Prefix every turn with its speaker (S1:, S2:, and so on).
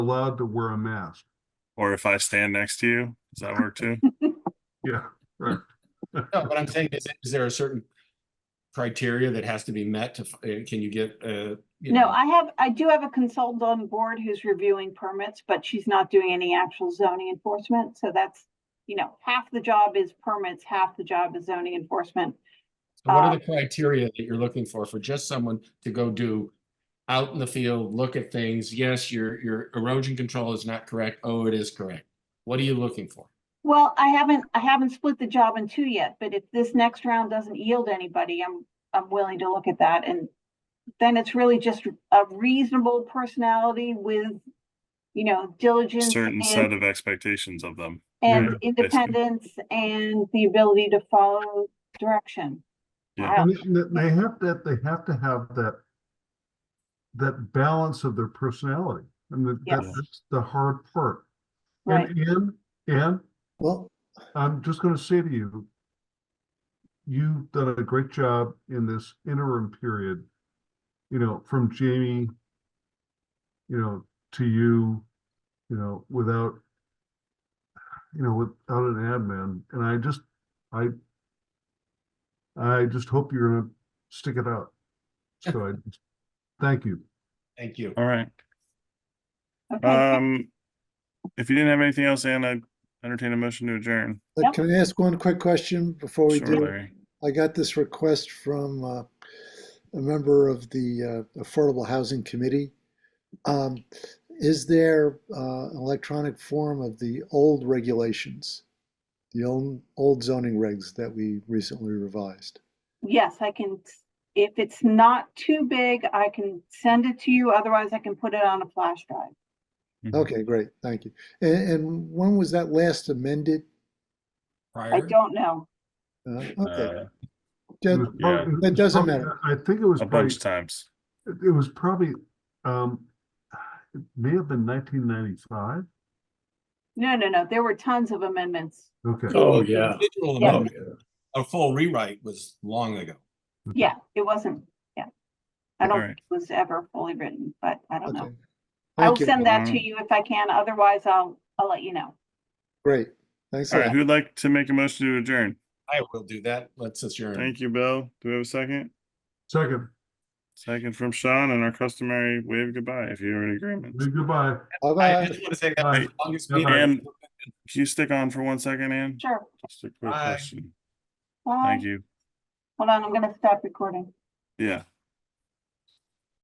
S1: allowed to wear a mask.
S2: Or if I stand next to you, does that work too?
S1: Yeah,
S3: No, but I'm saying, is, is there a certain criteria that has to be met to, f- uh, can you get, uh? you
S4: No,
S3: know,
S4: I have, I do have a consultant on board who's reviewing permits, but she's not doing any actual zoning enforcement. So that's, you know, half the job is permits, half the job is zoning enforcement.
S3: so What
S4: uh,
S3: are the criteria that you're looking for, for just someone to go do out in the field, look at things? Yes, your, your erosion control is not correct. Oh, it is correct. What are you looking for?
S4: Well, I haven't, I haven't split the job in two yet, but if this next round doesn't yield anybody, I'm, I'm willing to look at that and then it's really just a reasonable personality with, you know, diligence
S2: Certain
S4: and-
S2: set of expectations of them.
S4: and
S2: Right,
S4: independence and the ability to follow direction.
S2: Yeah.
S4: I-
S1: and they- they have that, they have to have that that balance of their personality. And that, that-
S4: Yes.
S1: that's the hard part.
S4: Right,
S1: And, and, and
S5: Well,
S1: I'm just gonna say to you, you've done a great job in this interim period, you know, from Jamie, you know, to you, you know, without, you know, without an admin, and I just, I, I just hope you're gonna stick it out. So I, just- thank you.
S3: Thank you.
S2: All right.
S4: okay,
S2: Um, if you didn't have anything else, Anna, entertain a motion to adjourn.
S5: uh,
S4: Yep.
S5: can I ask one quick question before we
S2: Sure,
S5: do?
S2: Larry.
S5: I got this request from uh, a member of the uh, Affordable Housing Committee. Um, Is there uh, an electronic form of the old regulations? The old, old zoning regs that we recently revised?
S4: yes, I can, if it's not too big, I can send it to you, otherwise I can put it on a flash drive.
S5: Okay, great, thank you. And, and when was that last amended?
S4: I
S3: Prior,
S4: don't know.
S5: Uh, Okay,
S2: Uh,
S1: It
S5: that-
S1: was prob-
S2: Yeah.
S1: it
S5: That
S1: was
S5: doesn't
S1: probably-
S5: matter.
S1: I think it was
S2: a
S1: probably
S2: bunch of times.
S1: It it was probably, um, it may have been nineteen ninety-five.
S4: No, no, no, there were tons of amendments.
S1: Okay,
S6: Oh, yeah.
S3: Digital
S4: Yeah.
S3: amendment, A full rewrite was long ago.
S4: Yeah, it wasn't, yeah. I don't
S2: Alright.
S4: think it was ever fully written, but I don't know.
S5: okay.
S4: I'll
S5: Thank you,
S4: send that to
S2: Alright.
S4: you if I can, otherwise I'll, I'll let you know.
S5: great, thanks a
S2: All right,
S5: lot.
S2: who'd like to make a motion to adjourn?
S3: I will do that. Let's adjourn.
S2: Thank you, Bill. Do we have a second?
S1: second,
S2: Second from Sean and our customary wave goodbye if you're in agreement.
S1: goodbye.
S3: I I
S5: Bye-bye.
S3: just want to say that
S1: Bye.
S3: was the longest
S1: Bye.
S3: meeting.
S2: And can you stick on for one second, Ann?
S4: Sure.
S2: Just a quick
S3: Bye.
S2: question.
S4: Bye.
S2: Thank you.
S4: Hold on, I'm gonna stop recording.
S2: Yeah.